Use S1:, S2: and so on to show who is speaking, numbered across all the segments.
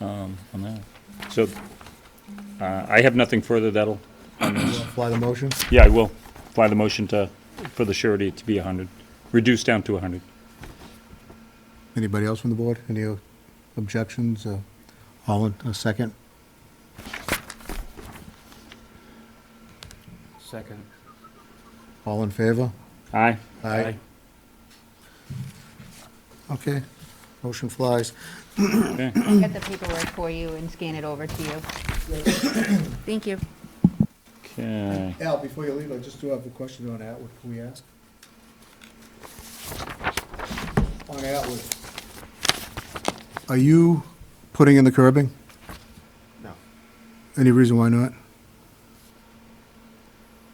S1: um, on that. So uh, I have nothing further that'll,
S2: Fly the motion?
S1: yeah, I will apply the motion to, for the surety to be 100, reduced down to 100.
S2: Anybody else from the board? Any objections? Uh, All in, a second?
S3: Second.
S2: All in favor?
S1: Aye.
S2: Aye. Okay, motion flies.
S1: Okay.
S4: Get the paperwork for you and scan it over to you. Thank you.
S1: Okay.
S2: Al, before you leave, I just do have a question on Atwood, can we ask? On Atwood. Are you putting in the curbing?
S5: No,
S2: Any reason why not?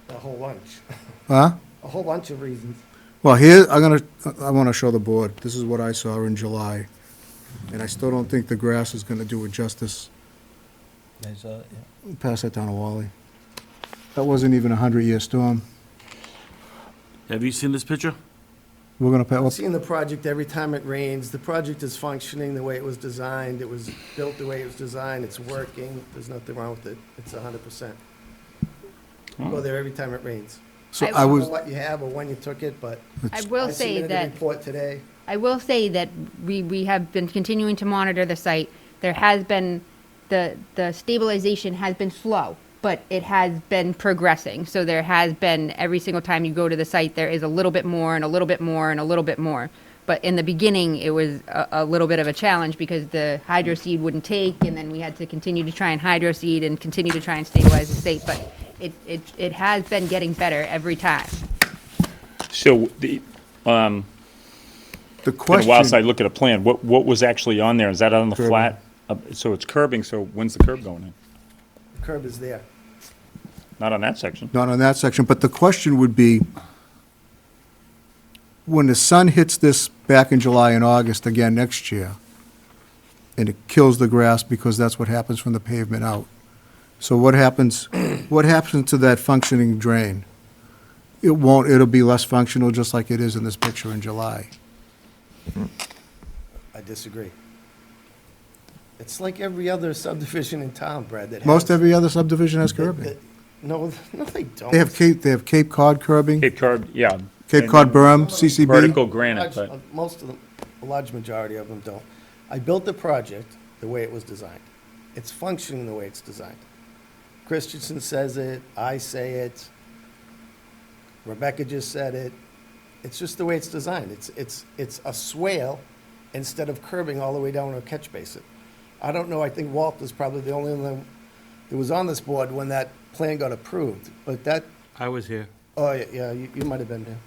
S5: a whole bunch,
S2: Huh?
S5: a whole bunch of reasons.
S2: Well, here, I'm gonna, I wanna show the board, this is what I saw in July, and I still don't think the grass is gonna do it justice. Pass that down to Wally. That wasn't even a hundred-year storm.
S6: Have you seen this picture?
S2: We're gonna, pa-
S5: I've seen the project every time it rains. The project is functioning the way it was designed. It was built the way it was designed. It's working. There's nothing wrong with it. It's hundred percent. Go there every time it rains.
S2: so
S4: I
S2: I
S5: I
S4: will-
S5: don't know
S2: Hmm. was,
S5: what you have or when you took it, but
S4: I
S5: I
S4: will say
S5: submitted a
S4: that,
S5: report today.
S4: I will say that we, we have been continuing to monitor the site. There has been, the, the stabilization has been slow, but it has been progressing. So there has been, every single time you go to the site, there is a little bit more and a little bit more and a little bit more. But in the beginning, it was a, a little bit of a challenge because the hydro seed wouldn't take, and then we had to continue to try and hydro seed and continue to try and stabilize the state. But it, it, it has been getting better every time.
S1: So the,
S2: the
S1: been a while since I
S2: question,
S1: look at a plan. What, what was actually on there? Is that on the
S2: Curbing.
S1: flat? Uh, So it's curbing, so when's the curb going in?
S5: The curb is there.
S1: Not on that section.
S2: not on that section, but the question would be, when the sun hits this back in July and August again next year, and it kills the grass because that's what happens from the pavement out. So what happens, what happens to that functioning drain? It won't, it'll be less functional, just like it is in this picture in July.
S5: I disagree. It's like every other subdivision in town, Brad, that has.
S2: Most every other subdivision has
S5: that-
S2: curbing.
S5: No, no, they don't.
S2: They have Cape, they have Cape Cod curbing,
S1: Cape Cod, yeah.
S2: Cape Cod berm,
S1: Vertical
S2: CCB.
S1: granite,
S5: Large-
S1: but,
S5: uh, Most of them, a large majority of them don't. I built the project the way it was designed. It's functioning the way it's designed. Christensen says it, I say it, Rebecca just said it. It's just the way it's designed. It's, it's, it's a swale instead of curbing all the way down to a catch basin. I don't know, I think Walt was probably the only one that was on this board when that plan got approved, but that,
S3: I was here.
S5: oh, yeah, yeah, you, you might have been there.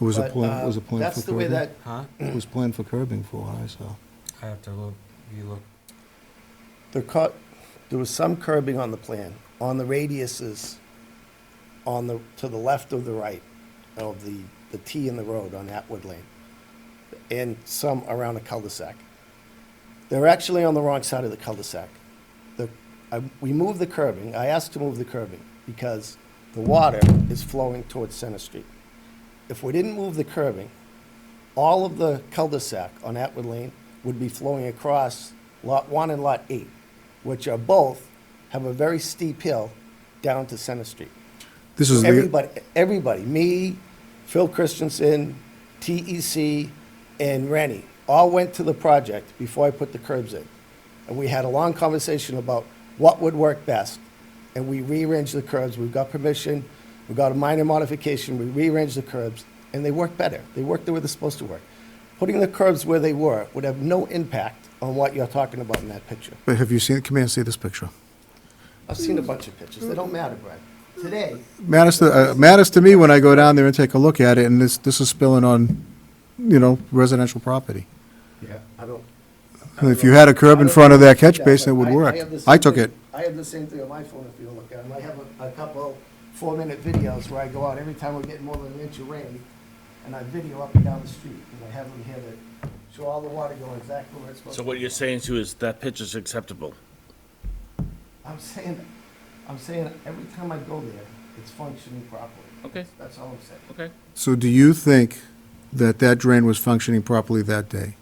S2: It was a
S5: But,
S2: plan,
S5: uh,
S2: it was a plan for curbing.
S5: That's the way that,
S3: Huh?
S2: It was planned for curbing for, uh, I saw.
S3: I have to look, you look.
S5: The cut, there was some curbing on the plan, on the radiuses, on the, to the left of the right of the, the T in the road on Atwood Lane, and some around a cul-de-sac. They're actually on the wrong side of the cul-de-sac. The, I, we moved the curbing, I asked to move the curbing, because the water is flowing towards Center Street. If we didn't move the curbing, all of the cul-de-sac on Atwood Lane would be flowing across Lot 1 and Lot 8, which are both, have a very steep hill down to Center Street.
S2: This is the,
S5: Everybody, everybody, me, Phil Christensen, TEC, and Rennie, all went to the project before I put the curbs in. And we had a long conversation about what would work best. And we rearranged the curbs. We got permission. We got a minor modification. We rearranged the curbs, and they worked better. They worked the way they're supposed to work. Putting the curbs where they were would have no impact on what you're talking about in that picture.
S2: but have you seen, come here and see this picture.
S5: I've seen a bunch of pictures. They don't matter, Brad. Today,
S2: Matters, to- uh, matters to me when I go down there and take a look at it, and this, this is spilling on, you know, residential property.
S5: Yeah, I don't.
S2: And if you had a curb in front of that catch basin, it would
S5: I- I
S2: work.
S5: have the
S2: I
S5: same
S2: took
S5: thing-
S2: it.
S5: I have the same thing on my phone if you look at them. I have a, a couple four-minute videos where I go out every time we're getting more than an inch of rain, and I video up and down the street, and I have them here that show all the water going exactly where it's supposed to.
S6: So what
S5: go.
S6: you're saying to is that picture's acceptable?
S5: I'm saying, I'm saying, every time I go there, it's functioning properly.
S6: Okay.
S5: That's all I'm saying.
S6: Okay.
S2: So do you think that that drain was functioning properly that day?